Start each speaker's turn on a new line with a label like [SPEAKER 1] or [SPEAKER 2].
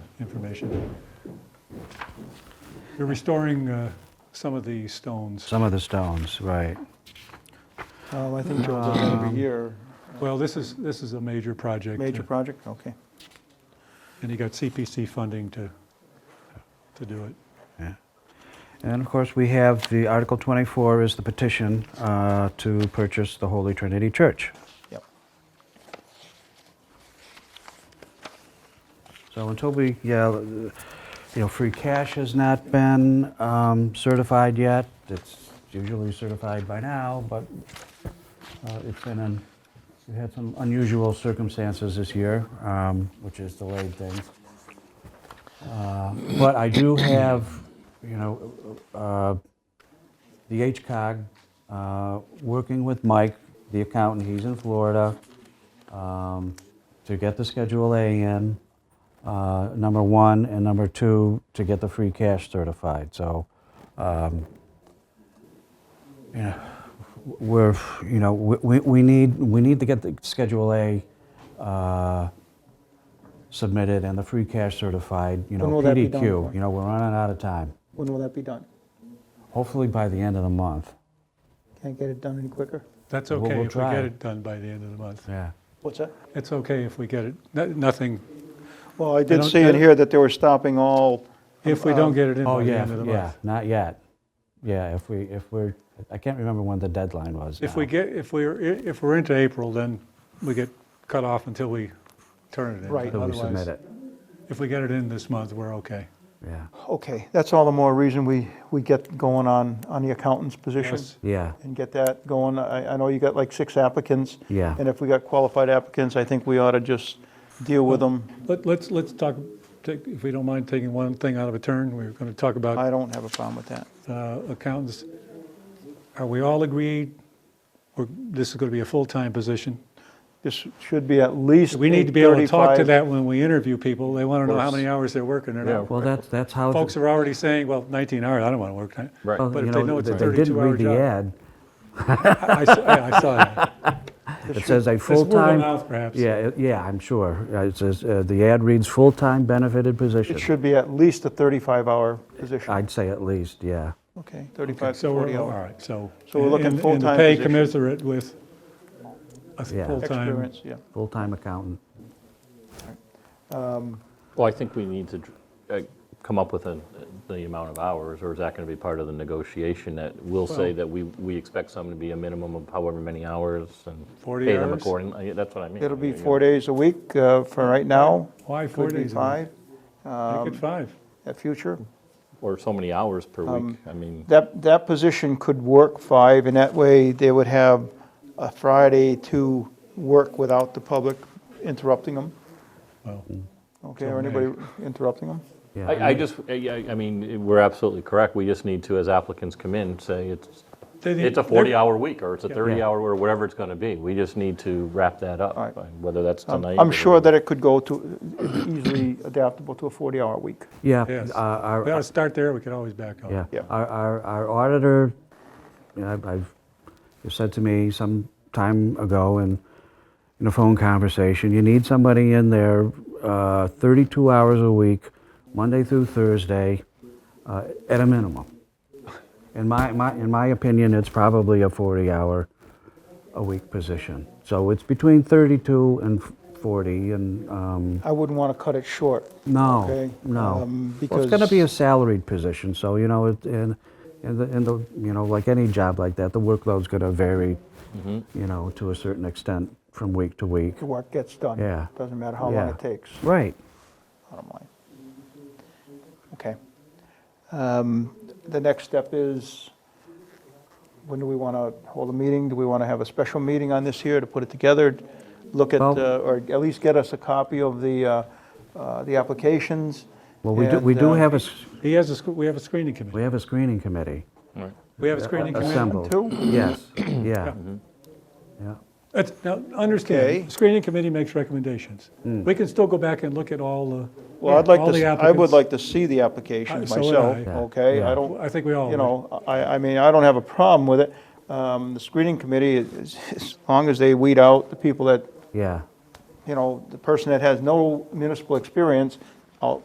[SPEAKER 1] information. You're restoring uh, some of the stones.
[SPEAKER 2] Some of the stones, right.
[SPEAKER 3] Oh, I
[SPEAKER 1] Mm-hmm.
[SPEAKER 3] think Joel does that
[SPEAKER 1] Um,
[SPEAKER 3] every year.
[SPEAKER 1] Well, this is, this is a major project.
[SPEAKER 3] Major
[SPEAKER 1] uh,
[SPEAKER 3] project, okay.
[SPEAKER 1] And you got CPC funding to, to do it.
[SPEAKER 2] And of course, we have the Article 24 is the petition uh, to purchase the Holy Trinity Church.
[SPEAKER 3] Yep.
[SPEAKER 2] So until we, yeah, uh, you know, free cash has not been um, certified yet. It's usually certified by now, but uh, it's been, an- we had some unusual circumstances this year, um, which has delayed things. Uh, But I do have, you know, uh, the HCOG, uh, working with Mike, the accountant, he's in Florida, um, to get the Schedule A in, uh, number one, and number two, to get the free cash certified, so, um, you know, we're, you know, we- we we need, we need to get the Schedule A uh, submitted and the free cash certified, you know,
[SPEAKER 3] When will that be done
[SPEAKER 2] PDQ.
[SPEAKER 3] for?
[SPEAKER 2] You know, we're running out of time.
[SPEAKER 3] When will that be done?
[SPEAKER 2] Hopefully by the end of the month.
[SPEAKER 3] Can't get it done any quicker?
[SPEAKER 1] That's
[SPEAKER 2] We'll- we'll
[SPEAKER 1] okay if we
[SPEAKER 2] try.
[SPEAKER 1] get it done by the end of the month.
[SPEAKER 2] Yeah.
[SPEAKER 3] What's that?
[SPEAKER 1] It's okay if we get it, no- nothing,
[SPEAKER 3] Well, I did
[SPEAKER 1] don't-
[SPEAKER 3] see
[SPEAKER 1] I
[SPEAKER 3] in
[SPEAKER 1] don't-
[SPEAKER 3] here that they were stopping all,
[SPEAKER 1] if we don't get it in
[SPEAKER 2] Oh,
[SPEAKER 1] by the
[SPEAKER 2] yeah,
[SPEAKER 1] end of the
[SPEAKER 2] yeah,
[SPEAKER 1] month.
[SPEAKER 2] not yet. Yeah, if we, if we're, I can't remember when the deadline was
[SPEAKER 1] If we
[SPEAKER 2] now.
[SPEAKER 1] get, if we're, if we're into April, then we get cut off until we turn it in.
[SPEAKER 3] Right.
[SPEAKER 1] But
[SPEAKER 2] Till we submit
[SPEAKER 1] otherwise,
[SPEAKER 2] it,
[SPEAKER 1] If we get it in this month, we're okay.
[SPEAKER 2] yeah.
[SPEAKER 3] okay, that's all the more reason we, we get going on, on the accountant's position.
[SPEAKER 1] Yes.
[SPEAKER 2] Yeah,
[SPEAKER 3] And get that going. I, I know you got like six applicants.
[SPEAKER 2] Yeah.
[SPEAKER 3] And if we got qualified applicants, I think we ought to just deal with them.
[SPEAKER 1] Let- Let's, let's talk, take- if we don't mind taking one thing out of a turn, we're going to talk about
[SPEAKER 3] I don't have a problem with that.
[SPEAKER 1] uh, accountants. Are we all agreed? We're- This is going to be a full-time position.
[SPEAKER 3] This should be at least
[SPEAKER 1] We need to be able to talk to
[SPEAKER 3] 8:35.
[SPEAKER 1] that when we interview people. They want to know how
[SPEAKER 4] course.
[SPEAKER 1] many hours they're working or
[SPEAKER 4] Yeah.
[SPEAKER 1] not.
[SPEAKER 2] well, that's, that's how. the-
[SPEAKER 1] Folks are already saying, well, 19 hours, I don't want to work. that."
[SPEAKER 4] Right.
[SPEAKER 2] well,
[SPEAKER 1] but
[SPEAKER 2] you
[SPEAKER 1] if they know it's a
[SPEAKER 2] they didn't
[SPEAKER 1] 32 hour
[SPEAKER 2] read the
[SPEAKER 1] job.
[SPEAKER 2] ad.
[SPEAKER 1] I I saw yeah, I saw that.
[SPEAKER 2] It says a
[SPEAKER 1] It's word of
[SPEAKER 2] full-time.
[SPEAKER 1] mouth, perhaps.
[SPEAKER 2] Yeah, it- yeah, I'm sure. Uh, It says, uh, the ad reads, "Full-time benefited position."
[SPEAKER 3] It should be at least a 35-hour position.
[SPEAKER 2] I'd say at least, yeah.
[SPEAKER 3] Okay, 35 to
[SPEAKER 1] So we're,
[SPEAKER 3] 40
[SPEAKER 1] all
[SPEAKER 3] hour
[SPEAKER 1] right, so.
[SPEAKER 3] So we're looking
[SPEAKER 1] and- And the
[SPEAKER 3] full-time
[SPEAKER 1] pay
[SPEAKER 3] position.
[SPEAKER 1] commensurate with a
[SPEAKER 2] Yeah.
[SPEAKER 1] full-time.
[SPEAKER 3] experience, yeah.
[SPEAKER 2] Full-time accountant.
[SPEAKER 4] Well, I think we need to uh, come up with an- the amount of hours, or is that going to be part of the negotiation that we'll say
[SPEAKER 1] Well-
[SPEAKER 4] that we, we expect someone to be a minimum of however many hours and
[SPEAKER 1] 40
[SPEAKER 4] pay them
[SPEAKER 1] hours?
[SPEAKER 4] accordingly? Yeah, That's what I mean.
[SPEAKER 3] It'll be
[SPEAKER 4] You know,
[SPEAKER 3] four days a week uh, for right now.
[SPEAKER 1] Why four
[SPEAKER 3] Could be
[SPEAKER 1] days? a week?
[SPEAKER 3] five um,
[SPEAKER 1] Make it five.
[SPEAKER 3] at future.
[SPEAKER 4] Or so many hours per
[SPEAKER 3] Um,
[SPEAKER 4] week. I mean,
[SPEAKER 3] That, that position could work five, and that way they would have a Friday to work without the public interrupting them,
[SPEAKER 1] Well,
[SPEAKER 3] okay, or anybody interrupting them.
[SPEAKER 2] Yeah,
[SPEAKER 4] I, I just, I, I- I mean, we're absolutely correct. We just need to, as applicants come in, say it's,
[SPEAKER 1] they need-
[SPEAKER 4] it's a
[SPEAKER 1] they're-
[SPEAKER 4] 40-hour week, or it's a
[SPEAKER 1] Yeah.
[SPEAKER 4] 30-hour, or whatever it's going to be. We just need to wrap that up,
[SPEAKER 3] All right.
[SPEAKER 4] and whether that's
[SPEAKER 3] Um,
[SPEAKER 4] tonight.
[SPEAKER 3] I'm
[SPEAKER 4] or
[SPEAKER 3] sure that
[SPEAKER 4] whatever.
[SPEAKER 3] it could go to, easily adaptable to a 40-hour week.
[SPEAKER 2] Yeah.
[SPEAKER 1] Yes.
[SPEAKER 2] uh, our-
[SPEAKER 1] We ought to start there, we could always back up.
[SPEAKER 2] Yeah.
[SPEAKER 3] Yeah.
[SPEAKER 2] Our, our, our auditor, you know, I've- I've, you said to me some time ago in, in a phone conversation, you need somebody in there uh, 32 hours a week, Monday through Thursday, uh, at a minimum. In my, my, in my opinion, it's probably a 40-hour a week position. So it's between 32 and 40, and, um,
[SPEAKER 3] I wouldn't want to cut it short.
[SPEAKER 2] no,
[SPEAKER 3] Okay,
[SPEAKER 2] no.
[SPEAKER 3] um,
[SPEAKER 2] Well, it's going to be a
[SPEAKER 3] because-
[SPEAKER 2] salaried position, so, you know, it- and, and, the- and, the you know, like any job like that, the workload's going to vary, you know, to a certain extent from week to week.
[SPEAKER 3] The work gets done.
[SPEAKER 2] Yeah.
[SPEAKER 3] Doesn't matter how long
[SPEAKER 2] Yeah.
[SPEAKER 3] it takes.
[SPEAKER 2] Right.
[SPEAKER 3] bottom line. Okay. Um, The next step is, when do we want to hold a meeting? Do we want to have a special meeting on this here to put it together? Look at,
[SPEAKER 2] Well-
[SPEAKER 3] uh, or at least get us a copy of the, uh, uh, the applications?
[SPEAKER 2] Well, we do, we
[SPEAKER 3] and,
[SPEAKER 2] do
[SPEAKER 3] uh,
[SPEAKER 2] have a, s-
[SPEAKER 1] He has a, sc- we have a screening
[SPEAKER 2] we
[SPEAKER 1] committee.
[SPEAKER 2] have a screening committee
[SPEAKER 1] We have a screening committee.
[SPEAKER 2] assembled.
[SPEAKER 3] Two?
[SPEAKER 2] Yes, yeah. Yeah,
[SPEAKER 1] That's, now,
[SPEAKER 3] Okay.
[SPEAKER 1] understand, the screening committee makes recommendations.
[SPEAKER 4] Hmm.
[SPEAKER 1] We can still go back and look at all the,
[SPEAKER 3] Well, I'd like
[SPEAKER 1] all the
[SPEAKER 3] to, I would
[SPEAKER 1] applicants.
[SPEAKER 3] like to see the applications
[SPEAKER 1] Uh, so would
[SPEAKER 3] myself,
[SPEAKER 1] I.
[SPEAKER 3] okay?
[SPEAKER 2] Yeah.
[SPEAKER 3] I don't,
[SPEAKER 1] I think we all.
[SPEAKER 3] you
[SPEAKER 1] would.
[SPEAKER 3] know, I, I mean, I don't have a problem with it. Um, The screening committee, is- as long as they weed out the people that
[SPEAKER 2] yeah,
[SPEAKER 3] you know, the person that has no municipal experience uh,